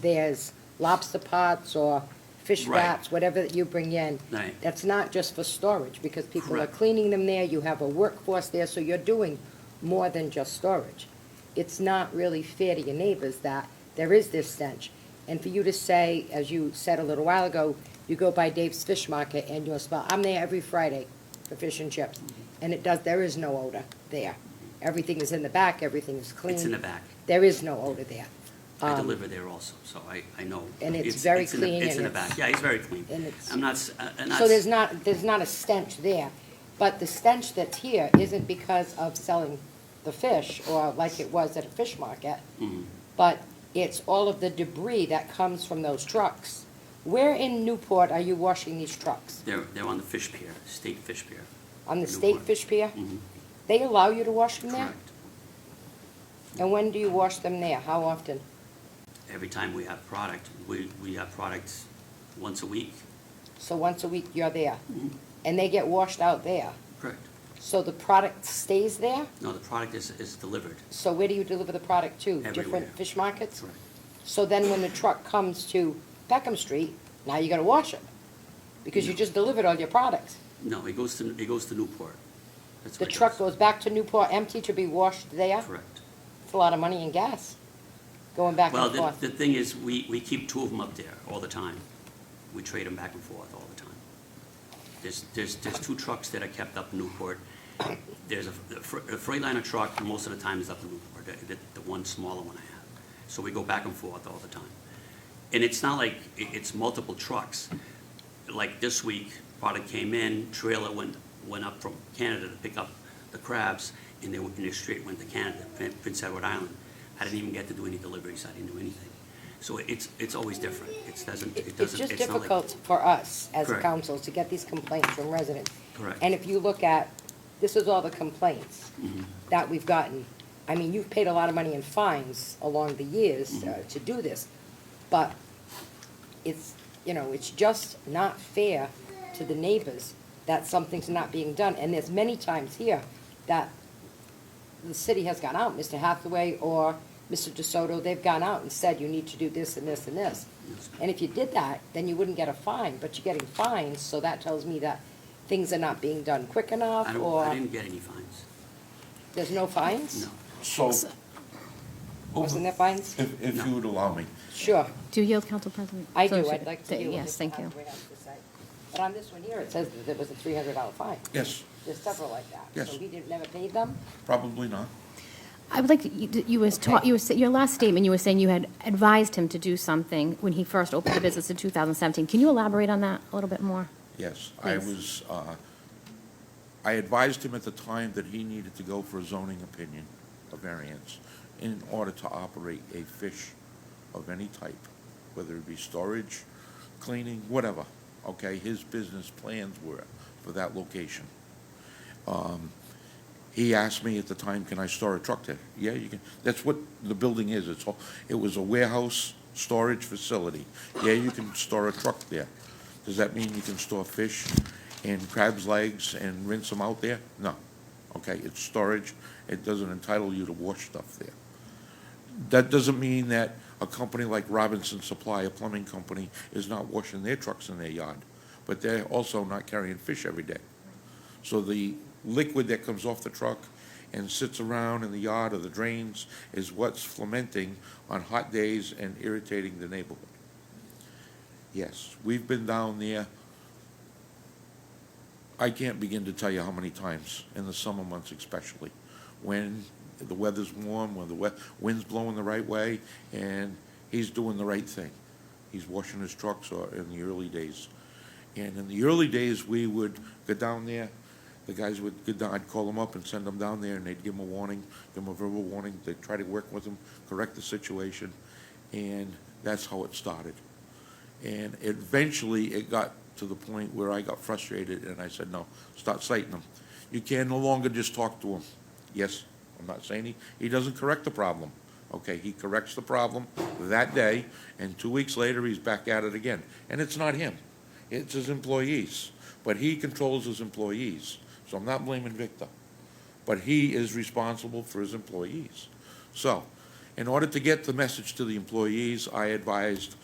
there's lobster pots or fish Right. wraps, whatever that you bring in. Right. That's not just for storage, because people are Correct. cleaning them there, you have a workforce there, so you're doing more than just storage. It's not really fair to your neighbors that there is this stench. And for you to say, as you said a little while ago, you go by Dave's Fish Market and you'll smell, I'm there every Friday for fish and chips, Mm-hmm. and it does, there is no odor there. Everything is in the back, everything is clean. It's in the back. There is no odor there. Um, I deliver there also, so I, I know. and it's very in the- clean It's in the and it's- back, yeah, it's very clean. and it's- I'm not, s- uh, uh, not. So s- there's not, there's not a stench there, but the stench that's here isn't because of selling the fish or like it was at a fish market, Mm-hmm. but it's all of the debris that comes from those trucks. Where in Newport are you washing these trucks? They're, they're on the fish pier, state fish pier. On the state Newport. fish pier? Mhm. They allow you to wash them there? Correct. And when do you wash them there? How often? Every time we have product, we, we have products once a week. Mm-hmm. So once a week you're there, and they get washed out there. Correct. So the product stays there? No, the product is, is delivered. So where do you deliver the product to? Everywhere. Different fish markets? Correct. So then when the truck comes to Peckham Street, now you gotta wash it, because you just delivered all your products. No, it goes to, it goes to Newport. That's The where it truck goes back to Newport empty to be washed there. Correct. It's a lot of money and gas, going back Well, and the, forth. the thing is, we, we keep two of them up there all the time. We trade them back and forth all the time. There's, there's, there's two trucks that are kept up in Newport. There's a, the Fre- a Freightliner truck, most of the time is up in Newport, the, the- the one smaller one I have. So we go back and forth all the time. And it's not like, i- it's multiple trucks. Like this week, product came in, trailer went, went up from Canada to pick up the crabs, and they, went- and they straight went to Canada, Prin- Prince Edward Island. I didn't even get to do any deliveries, I didn't do anything. So it's, it's always different. It doesn't, It- it It's doesn't, just it's not like. difficult for us as a Correct. council to get these complaints from residents. Correct. And if you look at, this is all the complaints Mm-hmm. that we've gotten. I mean, you've paid a lot of money in fines along the years Mm-hmm. uh, to do this, but it's, you know, it's just not fair to the neighbors that something's not being done. And there's many times here that the city has gone out, Mr. Hathaway or Mr. DeSoto, they've gone out and said, you need to do this and this and this. And if you did that, then you wouldn't get a fine, but you're getting fines, so that tells me that things are not being done quick I enough, don't, I or didn't get any fines, there's no fines? no. So, oh, Wasn't there fines? if, if you would allow me, Sure, Do you yield, Council President? I So do, should- I'd like to th- hear what Yes, Mr. thank you. Hathaway has to say. But on this one here, it says that it was a three hundred dollar fine. yes, There's several like that. Yes. So we didn't, never paid them? probably not. I would like, to- you you was taught, Okay. you was, your last statement, you were saying you had advised him to do something when he first opened the business in 2017. Can you elaborate on that a little bit more? Yes, I Please. was, uh, I advised him at the time that he needed to go for a zoning opinion, a variance, in order to operate a fish of any type, whether it be storage, cleaning, whatever, okay? His business plans were for that location. Um, He asked me at the time, can I store a truck there? Yeah, you can, that's what the building is, it's all, it was a warehouse storage facility. Yeah, you can store a truck there. Does that mean you can store fish and crab's legs and rinse them out there? No. Okay, it's storage, it doesn't entitle you to wash stuff there. That doesn't mean that a company like Robinson Supply, a plumbing company, is not washing their trucks in their yard, but they're also not carrying fish every day. So the liquid that comes off the truck and sits around in the yard or the drains is what's fermenting on hot days and irritating the neighborhood. Yes, we've been down there. I can't begin to tell you how many times, in the summer months especially, when the weather's warm, when the we- wind's blowing the right way, and he's doing the right thing. He's washing his trucks or in the early days. And in the early days, we would go down there, the guys would go down, I'd call them up and send them down there, and they'd give them a warning, give them a verbal warning, they'd try to work with them, correct the situation, and that's how it started. And eventually, it got to the point where I got frustrated, and I said, no, start citing them. You can no longer just talk to him. Yes, I'm not saying he, he doesn't correct the problem. Okay, he corrects the problem that day, and two weeks later, he's back at it again. And it's not him, it's his employees. But he controls his employees, so I'm not blaming Victor but he is responsible for his employees. So, In order to get the message to the employees, I advised